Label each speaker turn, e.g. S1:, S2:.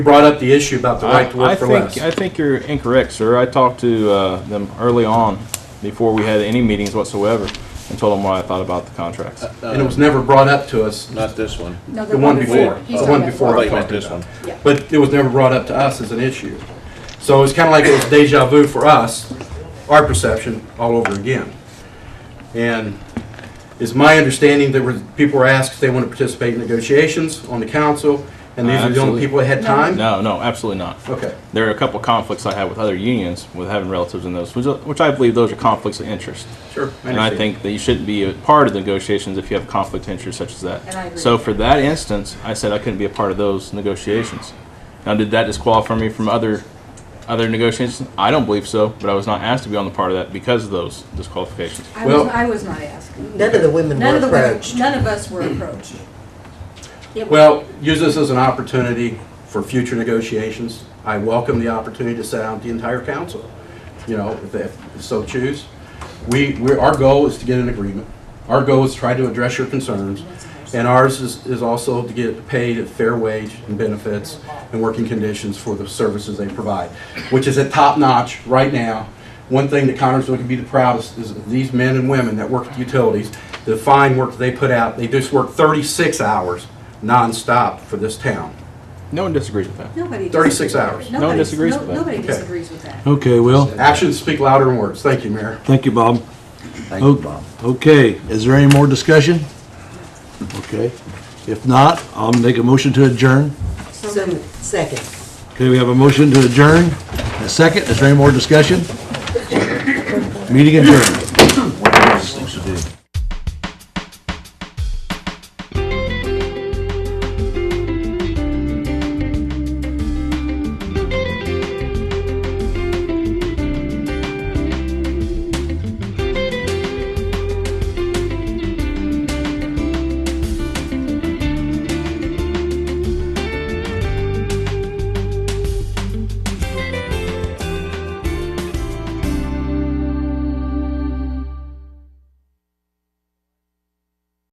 S1: brought up the issue about the right to
S2: I
S1: work for
S2: think,
S1: less.
S2: I think you're incorrect, sir. I talked to uh, them early on, before we had any meetings whatsoever, and told them what I thought about the contracts.
S1: And it was never brought up to us,
S3: Uh, Not this one.
S4: No,
S1: the one before,
S4: he's
S1: the
S4: talking
S1: one
S4: about-
S1: before
S3: I
S1: I
S3: thought you meant
S1: talked
S3: this
S1: about.
S4: Yeah.
S1: But it was never brought up to us as an issue. So it's kind of like it was deja vu for us, our perception, all over again. And it's my understanding that were- people were asked if they want to participate in negotiations on the council, and these are the only
S2: Absolutely.
S1: people that had time?
S2: No, no, absolutely not.
S1: Okay.
S2: There are a couple conflicts I have with other unions with having relatives in those, which, which I believe those are conflicts of interest.
S1: Sure.
S2: And I
S1: understand.
S2: think that you shouldn't be a part of the negotiations if you have a conflict of interest such as that.
S4: And I agree.
S2: So for that instance, I said I couldn't be a part of those negotiations. Now, did that disqualify me from other, other negotiations? I don't believe so, but I was not asked to be on the part of that because of those disqualifications.
S4: I
S1: Well-
S4: was, I was not asked.
S5: None of the women
S4: None
S5: were
S4: of the women,
S5: approached.
S4: none of us were approached. It was-
S1: Well, use this as an opportunity for future negotiations. I welcome the opportunity to sit down with the entire council, you know, if they if so choose. We, we, our goal is to get an agreement. Our goal is to try to address your concerns. And ours is, is also to get paid a fair wage and benefits and working conditions for the services they provide, which is at top notch right now. One thing that Connersville can be the proudest is of these men and women that work at the utilities, the fine work they put out, they just work 36 hours nonstop for this town.
S2: No one disagrees with that.
S4: Nobody.
S1: 36
S4: disagrees with
S1: hours.
S4: that.
S1: No
S2: one
S4: Nobody-
S2: disagrees with
S4: no-
S2: that.
S4: Nobody
S1: Okay.
S4: disagrees with that.
S6: Okay, Will,
S1: Actions speak louder than words. Thank you, Mayor.
S6: thank you, Bob.
S3: Thank you, Bob.
S6: Okay, is there any more discussion? Okay, if not, I'll make a motion to adjourn.
S5: So, second.
S6: Okay, we have a motion to adjourn, a second, is there any more discussion? Meeting adjourned.